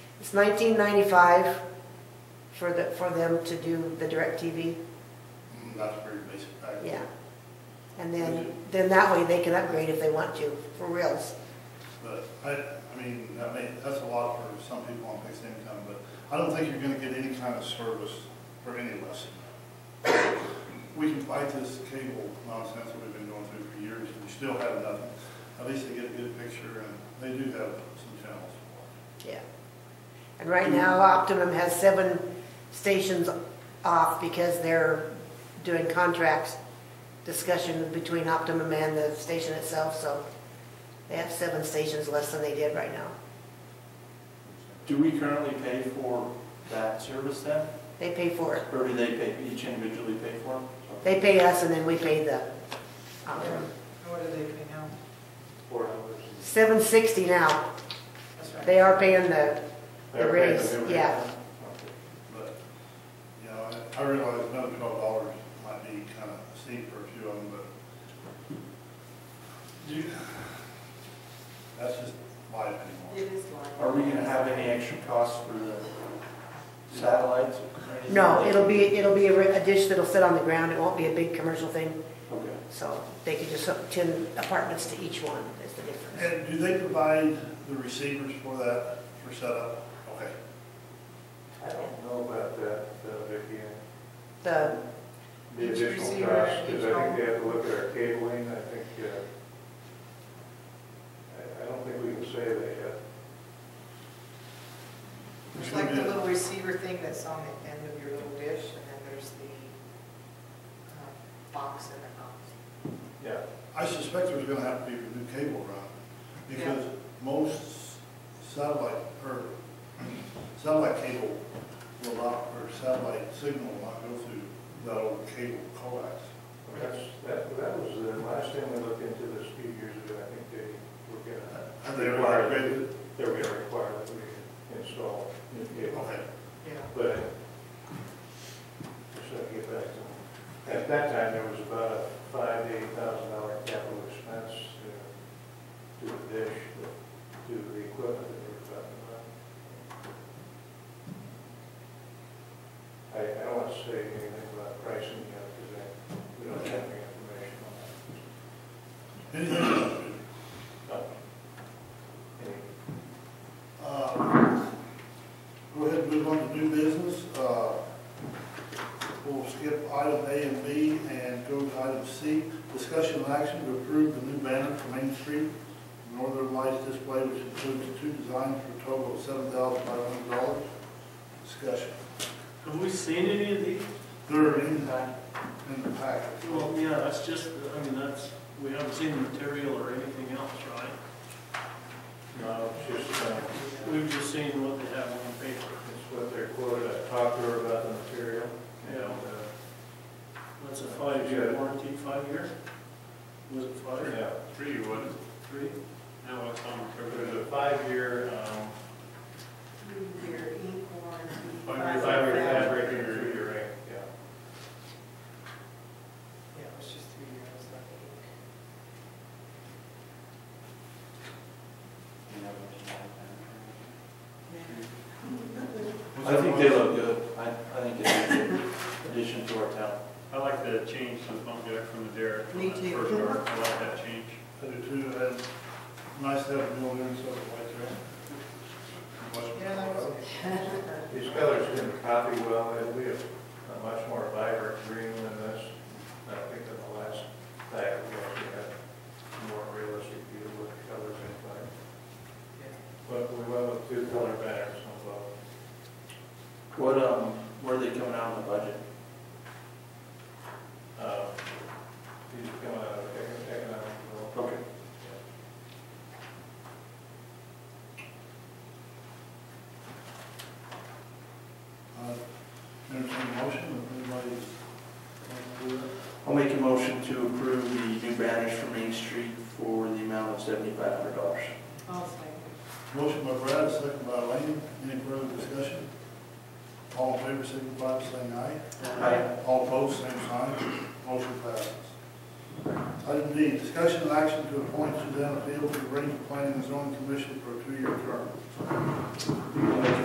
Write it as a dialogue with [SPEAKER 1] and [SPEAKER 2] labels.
[SPEAKER 1] It's nineteen ninety-five for the, for them to do the DirecTV,
[SPEAKER 2] Mm, That's a pretty basic package.
[SPEAKER 1] yeah. And then, then that way they can upgrade if they want to, for reals.
[SPEAKER 2] But I, I mean, that may, that's a lot for some people on fixed income, but I don't think you're gonna get any kind of service for any less. We can fight this cable nonsense that we've been going through for years, and we still have nothing. At least they get a good picture, and they do have some channels.
[SPEAKER 1] Yeah. And right now Optimum has seven stations off because they're doing contracts discussion between Optimum and the station itself, so they have seven stations less than they did right now.
[SPEAKER 3] Do we currently pay for that service then?
[SPEAKER 1] They pay for it.
[SPEAKER 3] Or do they pay, each individually pay for it?
[SPEAKER 1] They pay us and then we pay the Optimum.
[SPEAKER 4] What do they pay now?
[SPEAKER 3] Four hours.
[SPEAKER 1] Seven sixty now.
[SPEAKER 4] That's right.
[SPEAKER 1] They are paying the,
[SPEAKER 3] They're
[SPEAKER 1] The
[SPEAKER 3] paying
[SPEAKER 1] raise,
[SPEAKER 3] the new rate.
[SPEAKER 1] yeah.
[SPEAKER 2] But, you know, I- I realize another twelve dollars might be kind of steep for a few of them, but you- that's just life anymore.
[SPEAKER 4] It is
[SPEAKER 3] Are
[SPEAKER 4] live.
[SPEAKER 3] we gonna have any extra costs for the satellites or anything?
[SPEAKER 1] no, it'll be, it'll be a re- a dish that'll sit on the ground. It won't be a big commercial thing.
[SPEAKER 3] Okay.
[SPEAKER 1] So they could just hook ten apartments to each one is the difference.
[SPEAKER 2] And do they provide the receivers for that, for setup? Okay.
[SPEAKER 5] I don't know about that, uh, Vicki,
[SPEAKER 1] The,
[SPEAKER 5] the
[SPEAKER 4] Each
[SPEAKER 5] additional
[SPEAKER 4] receiver,
[SPEAKER 5] cost, because
[SPEAKER 4] each
[SPEAKER 5] I
[SPEAKER 4] home.
[SPEAKER 5] think they have to look at our cabling, I think, uh, I, I don't think we can say that yet.
[SPEAKER 4] It's like the little receiver thing that's on the end of your little dish, and then there's the um, box in the house.
[SPEAKER 5] Yeah.
[SPEAKER 2] I suspect there's gonna have to be a new cable run, because most satellite, or satellite cable will not, or satellite signal will not go through that old cable coax.
[SPEAKER 5] That's, that, that was the last time we looked into this a few years ago, I think they were gonna,
[SPEAKER 2] Have they ever upgraded it?
[SPEAKER 5] they were gonna require that we install new cable.
[SPEAKER 2] Okay.
[SPEAKER 4] Yeah.
[SPEAKER 5] But, just to get back to, them. at that time, there was about a five, to eight thousand dollar capital expense uh, to the dish, to the equipment that we were talking about. I, I don't want to say anything about pricing yet, because I, we don't have any information on
[SPEAKER 2] Anything
[SPEAKER 5] that.
[SPEAKER 2] else?
[SPEAKER 5] No. Any
[SPEAKER 2] Uh, Go ahead and move on to new business. Uh, We'll skip item A and B and go to item C, discussion and action to approve the new banner for Main Street, Northern Lights display, which includes two designs for a total of seven thousand five hundred dollars. Discussion.
[SPEAKER 6] Have we seen any of these?
[SPEAKER 2] They're in in the packet.
[SPEAKER 6] Well, yeah, that's just, I mean, that's, we haven't seen the material or anything else, right?
[SPEAKER 5] No, it's just, uh,
[SPEAKER 6] We've just seen what they have on paper.
[SPEAKER 5] it's what they're quoted, I talked to her about the material. and,
[SPEAKER 6] Yeah.
[SPEAKER 5] uh,
[SPEAKER 6] That's a five-year warranty, five years? Was it five?
[SPEAKER 5] Yeah,
[SPEAKER 7] Three, what is
[SPEAKER 6] Three?
[SPEAKER 7] it? Now it's on
[SPEAKER 5] it
[SPEAKER 7] cover.
[SPEAKER 5] was a five-year, um,
[SPEAKER 4] Three-year ink warranty.
[SPEAKER 5] five-year fabric and a three-year ring, yeah.
[SPEAKER 4] Yeah, it was just three years, I think.
[SPEAKER 3] I think they look good. I, I think it's a good addition to our town.
[SPEAKER 7] I like the change to the bump deck from the derrick.
[SPEAKER 4] Me
[SPEAKER 7] on that
[SPEAKER 4] too.
[SPEAKER 7] First arc, I like that change.
[SPEAKER 2] I do too, and nice to have a mill in, so it's right there.
[SPEAKER 4] Yeah, that was
[SPEAKER 5] These colors didn't copy well, it'll be a a much more vibrant green than this. I think than the last pack, we actually had a more realistic view of what the colors look like. But we went with two color patterns on both.
[SPEAKER 3] What, um, where are they coming out on the budget?
[SPEAKER 5] Uh, These come out of econ- economic development.
[SPEAKER 3] Okay.
[SPEAKER 2] Uh, Entertained a motion, if anybody's.
[SPEAKER 3] I'll make a motion to approve the new banners for Main Street for the amount of seventy-five hundred dollars.
[SPEAKER 4] I'll say.
[SPEAKER 2] Motion by Brad, second by Lane. Any further discussion? All in favor, signify by saying aye.
[SPEAKER 3] Aye.
[SPEAKER 2] All opposed, same sign. Motion passes. Item D, discussion and action to appoint Susanna Field to the Rankin Planning and Zoning Commission for a two-year term.
[SPEAKER 3] I'll make a